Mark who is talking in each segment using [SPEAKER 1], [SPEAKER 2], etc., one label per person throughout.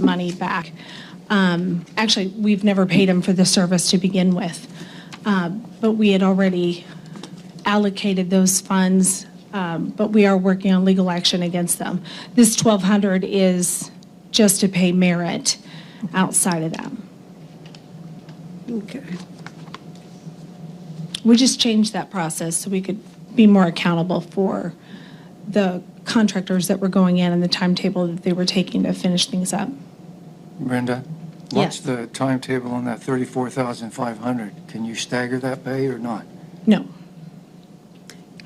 [SPEAKER 1] money back. Um, Actually, we've never paid him for the service to begin with, Uh, but we had already allocated those funds, um, but we are working on legal action against them. This 1,200 is just to pay merit outside of that.
[SPEAKER 2] Okay.
[SPEAKER 1] We just changed that process so we could be more accountable for the contractors that were going in and the timetable that they were taking to finish things up.
[SPEAKER 3] Brenda,
[SPEAKER 2] Yes.
[SPEAKER 3] what's the timetable on that 34,500? Can you stagger that pay or not?
[SPEAKER 1] No.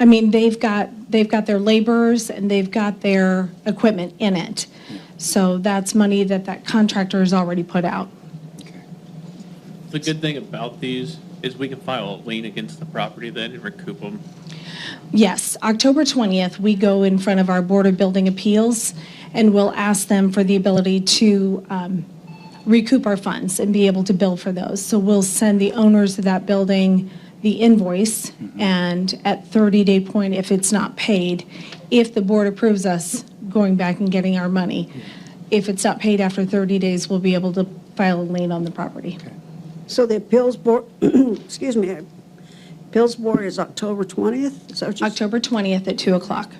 [SPEAKER 1] I mean, they've got, they've got their laborers and they've got their equipment in it. So that's money that that contractor has already put out.
[SPEAKER 3] Okay.
[SPEAKER 4] The good thing about these is we can file a lien against the property then and recoup them.
[SPEAKER 1] Yes, October 20th, we go in front of our Board of Building Appeals, and we'll ask them for the ability to um, recoup our funds and be able to bill for those. So we'll send the owners of that building the invoice, and at 30-day point, if it's not paid, if the board approves us going back and getting our money, if it's not paid after 30 days, we'll be able to file a lien on the property.
[SPEAKER 2] So the appeals board, excuse me, appeals board is October 20th? Is that what you-
[SPEAKER 1] October 20th at 2 o'clock.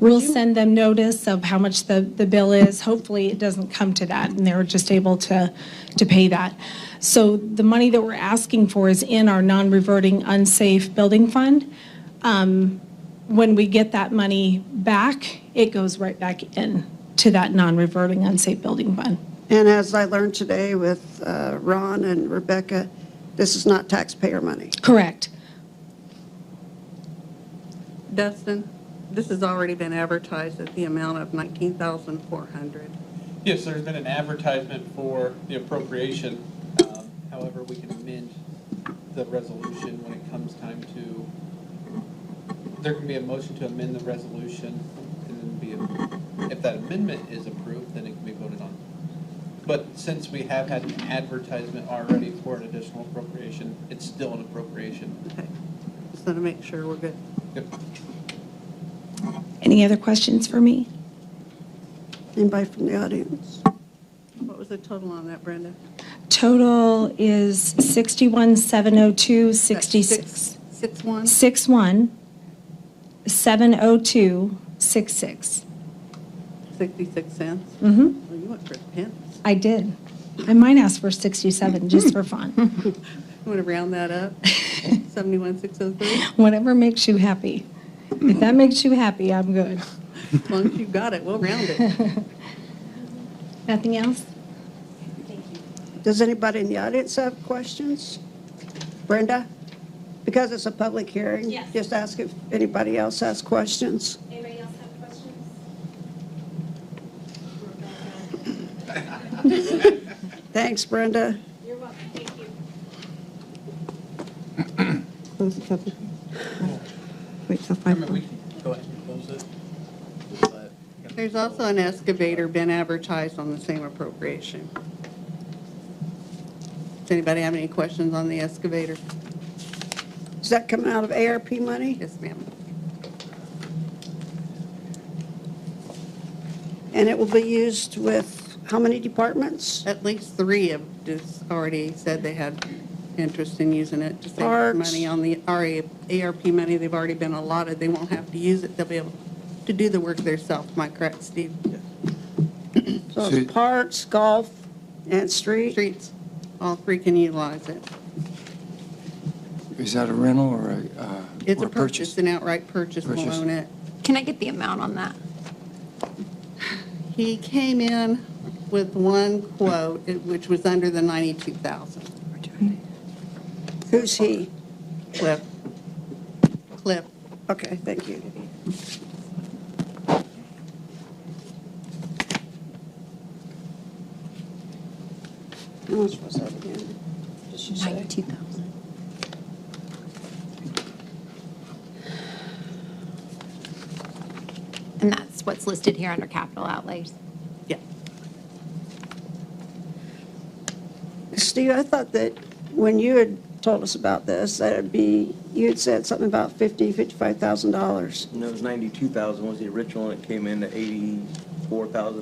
[SPEAKER 1] We'll send them notice of how much the, the bill is. Hopefully, it doesn't come to that, and they're just able to, to pay that. So the money that we're asking for is in our non-reverting unsafe building fund. Um, When we get that money back, it goes right back in to that non-reverting unsafe building fund.
[SPEAKER 2] And as I learned today with uh, Ron and Rebecca, this is not taxpayer money.
[SPEAKER 1] Correct.
[SPEAKER 5] Dustin, this has already been advertised at the amount of 19,400.
[SPEAKER 4] Yes, there's been an advertisement for the appropriation. Um, However, we can amend the resolution when it comes time to, there can be a motion to amend the resolution and then be, if that amendment is approved, then it can be voted on. But since we have had an advertisement already for an additional appropriation, it's still an appropriation.
[SPEAKER 5] Okay, just want to make sure we're good.
[SPEAKER 4] Yep.
[SPEAKER 1] Any other questions for me?
[SPEAKER 2] Anybody from the audience?
[SPEAKER 5] What was the total on that, Brenda?
[SPEAKER 1] Total is 61,702, 66.
[SPEAKER 5] Six one?
[SPEAKER 1] 61, 702, 66.
[SPEAKER 5] 66 cents?
[SPEAKER 1] Mm-hmm.
[SPEAKER 5] Well, you went for pence.
[SPEAKER 1] I did. I might ask for 67, just for fun.
[SPEAKER 5] You want to round that up? 71,603?
[SPEAKER 1] Whatever makes you happy. If that makes you happy, I'm good.
[SPEAKER 5] As long as you got it, we'll round it.
[SPEAKER 1] Nothing else?
[SPEAKER 2] Does anybody in the audience have questions? Brenda? Because it's a public hearing.
[SPEAKER 6] Yes.
[SPEAKER 2] Just ask if anybody else has questions.
[SPEAKER 6] Anybody else have questions?
[SPEAKER 2] Thanks, Brenda.
[SPEAKER 6] You're welcome, thank you.
[SPEAKER 7] Close the public. Wait till
[SPEAKER 4] I
[SPEAKER 7] five.
[SPEAKER 4] mean, we can go ahead and close it. but-
[SPEAKER 5] There's also an excavator been advertised on the same appropriation. Does anybody have any questions on the excavator?
[SPEAKER 2] Does that come out of ARP money?
[SPEAKER 5] Yes, ma'am.
[SPEAKER 2] And it will be used with how many departments?
[SPEAKER 5] At least three have just already said they had interest in using it to save
[SPEAKER 2] Parks.
[SPEAKER 5] money on the RA ARP money. They've already been allotted. They won't have to use it. They'll be able to do the work themselves. Am I correct, Steve?
[SPEAKER 2] So
[SPEAKER 3] See-
[SPEAKER 2] it's parks, golf, and street?
[SPEAKER 5] Streets, all three can utilize it.
[SPEAKER 3] Is that a rental or a, uh,
[SPEAKER 5] It's
[SPEAKER 3] or
[SPEAKER 5] a purchase, an outright purchase. We'll
[SPEAKER 3] Purchase.
[SPEAKER 5] own it.
[SPEAKER 6] Can I get the amount on that?
[SPEAKER 5] He came in with one quote, it- which was under the 92,000.
[SPEAKER 2] Who's he?
[SPEAKER 5] Cliff. Cliff.
[SPEAKER 2] Okay, thank you. How much was that again? Did she say?
[SPEAKER 6] Ninety-two thousand. And that's what's listed here under capital outlays.
[SPEAKER 5] Yeah.
[SPEAKER 2] Steve, I thought that when you had told us about this, that it'd be, you had said something about 50, 55,000 dollars.
[SPEAKER 8] No, it was 92,000 was the original, and it came in at 84,000.